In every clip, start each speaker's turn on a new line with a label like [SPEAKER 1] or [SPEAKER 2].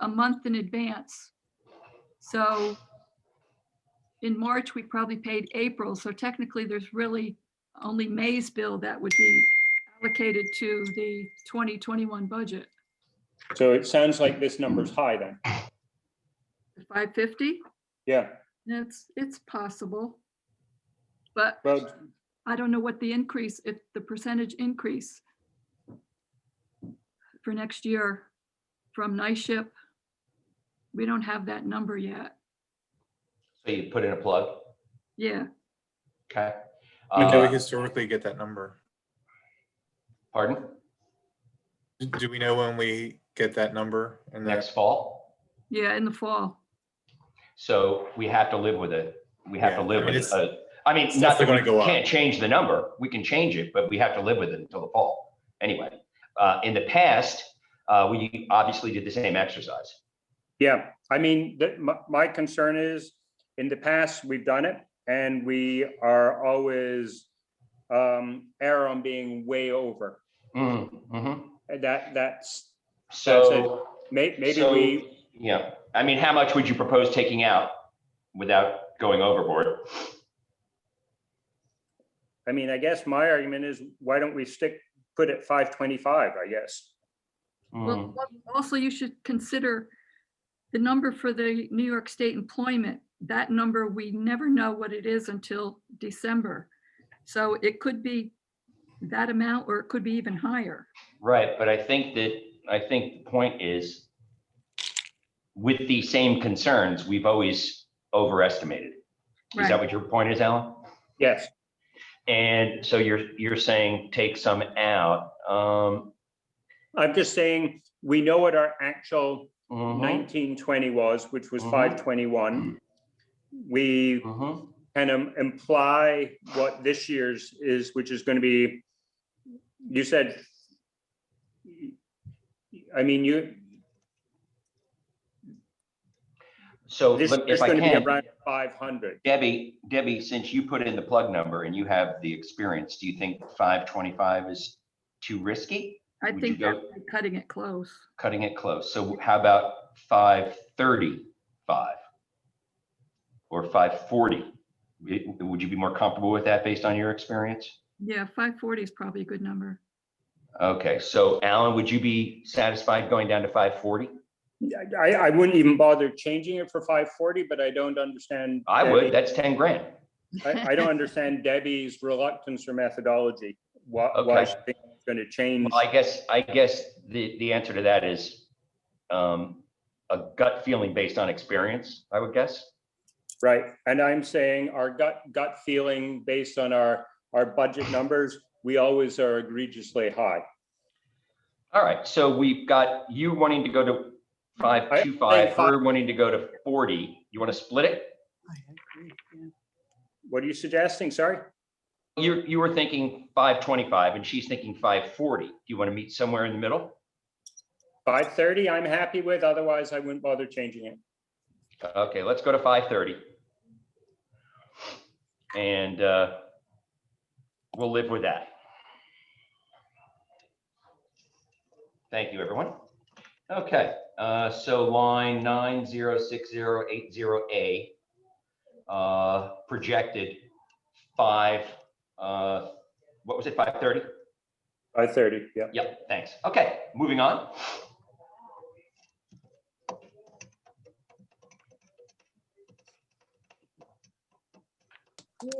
[SPEAKER 1] a month in advance. So in March, we probably paid April, so technically there's really only May's bill that would be allocated to the 2021 budget.
[SPEAKER 2] So it sounds like this number's high then.
[SPEAKER 1] The 550,
[SPEAKER 2] Yeah,
[SPEAKER 1] it's, it's possible. But
[SPEAKER 2] well,
[SPEAKER 1] I don't know what the increase, if the percentage increase for next year from NISHIP, we don't have that number yet.
[SPEAKER 3] So you put in a plug,
[SPEAKER 1] Yeah,
[SPEAKER 3] okay?
[SPEAKER 4] When do we
[SPEAKER 3] Uh,
[SPEAKER 4] historically get that number?
[SPEAKER 3] Pardon?
[SPEAKER 4] Do- Do we know when we get that number? And
[SPEAKER 3] Next
[SPEAKER 4] that's
[SPEAKER 3] fall?
[SPEAKER 1] yeah, in the fall.
[SPEAKER 3] So we have to live with it. We have to
[SPEAKER 4] Yeah, I
[SPEAKER 3] live
[SPEAKER 4] mean,
[SPEAKER 3] with it.
[SPEAKER 4] it's-
[SPEAKER 3] Uh, I mean,
[SPEAKER 4] it's
[SPEAKER 3] not that
[SPEAKER 4] definitely
[SPEAKER 3] we
[SPEAKER 4] gonna go up.
[SPEAKER 3] can't change the number. We can change it, but we have to live with it until the fall. Anyway, uh, in the past, uh, we obviously did the same exercise.
[SPEAKER 2] yeah, I mean, that, my, my concern is, in the past, we've done it, and we are always um, err on being way over.
[SPEAKER 3] Mm, mhm.
[SPEAKER 2] And that, that's,
[SPEAKER 3] So,
[SPEAKER 2] may, maybe
[SPEAKER 3] So-
[SPEAKER 2] we,
[SPEAKER 3] yeah, I mean, how much would you propose taking out without going overboard?
[SPEAKER 2] I mean, I guess my argument is, why don't we stick, put it five twenty-five, I guess?
[SPEAKER 3] Mm,
[SPEAKER 1] Well, Also, you should consider the number for the New York State employment. That number, we never know what it is until December. So it could be that amount, or it could be even higher.
[SPEAKER 3] Right, but I think that, I think the point is with the same concerns, we've always overestimated. Is that
[SPEAKER 1] Right.
[SPEAKER 3] what your point is, Alan?
[SPEAKER 2] Yes,
[SPEAKER 3] And so you're, you're saying take some out. Um,
[SPEAKER 2] I'm just saying, we know what our actual
[SPEAKER 3] mhm,
[SPEAKER 2] Mm-hmm. nineteen twenty was, which was
[SPEAKER 3] Mhm.
[SPEAKER 2] five twenty-one. We
[SPEAKER 3] mhm.
[SPEAKER 2] kind of um, imply what this year's is, which is going to be, you said, I mean, you,
[SPEAKER 3] So
[SPEAKER 2] this
[SPEAKER 3] let-
[SPEAKER 2] is
[SPEAKER 3] if I
[SPEAKER 2] going to be
[SPEAKER 3] can,
[SPEAKER 2] around 500.
[SPEAKER 3] Debbie, Debbie, since you put in the plug number and you have the experience, do you think five twenty-five is too risky?
[SPEAKER 1] I
[SPEAKER 3] Would you
[SPEAKER 1] think
[SPEAKER 3] go-
[SPEAKER 1] that's cutting it close.
[SPEAKER 3] Cutting it close. So how about five thirty-five? Or five forty? Would you be more comfortable with that based on your experience?
[SPEAKER 1] Yeah, 540 is probably a good number.
[SPEAKER 3] Okay, so Alan, would you be satisfied going down to five forty?
[SPEAKER 2] I, I wouldn't even bother changing it for 540, but I don't understand.
[SPEAKER 3] I would.
[SPEAKER 2] Debbie-
[SPEAKER 3] That's ten grand.
[SPEAKER 2] I, I don't understand Debbie's reluctance or methodology. Why, why
[SPEAKER 3] Okay.
[SPEAKER 2] she think it's going to change.
[SPEAKER 3] Well, I guess, I guess the, the answer to that is um, a gut feeling based on experience, I would guess.
[SPEAKER 2] Right, and I'm saying our gut, gut feeling based on our, our budget numbers, we always are egregiously high.
[SPEAKER 3] All right, so we've got you wanting to go to five two five,
[SPEAKER 2] I- I-
[SPEAKER 3] her wanting to go to forty. You want to split it?
[SPEAKER 2] What are you suggesting? Sorry?
[SPEAKER 3] You, you were thinking five twenty-five and she's thinking five forty. Do you want to meet somewhere in the middle?
[SPEAKER 2] Five thirty, I'm happy with, otherwise I wouldn't bother changing it.
[SPEAKER 3] Okay, let's go to five thirty. And uh, we'll live with that. Thank you, everyone. Okay, uh, so line nine zero six zero eight zero A uh, projected five, uh, what was it, five thirty?
[SPEAKER 2] Five thirty, yeah.
[SPEAKER 3] Yep, thanks. Okay, moving on.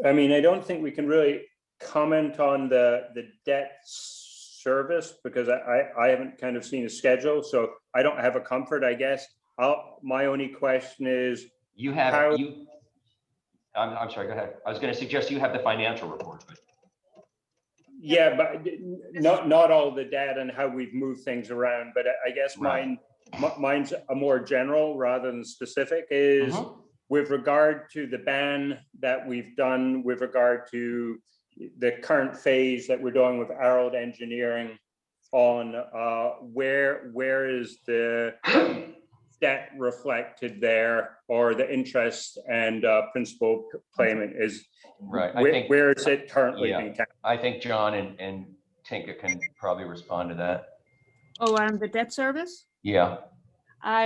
[SPEAKER 2] I mean, I don't think we can really comment on the, the debt service because I, I, I haven't kind of seen a schedule, so I don't have a comfort, I guess. I'll, my only question is,
[SPEAKER 3] You
[SPEAKER 2] How-
[SPEAKER 3] have, you, I'm, I'm sorry, go ahead. I was gonna suggest you have the financial report, but,
[SPEAKER 2] yeah, but not, not all the data and how we've moved things around, but I- I guess
[SPEAKER 3] Right.
[SPEAKER 2] mine, mi- mine's a more general rather than specific is
[SPEAKER 3] Mhm.
[SPEAKER 2] with regard to the ban that we've done, with regard to the current phase that we're doing with Arald Engineering on uh, where, where is the debt reflected there or the interest and uh, principal payment is,
[SPEAKER 3] right, I
[SPEAKER 2] where
[SPEAKER 3] think,
[SPEAKER 2] where is it currently
[SPEAKER 3] Yeah.
[SPEAKER 2] being kept?
[SPEAKER 3] I think John and, and Tinka can probably respond to that.
[SPEAKER 5] Oh, on the debt service?
[SPEAKER 3] Yeah,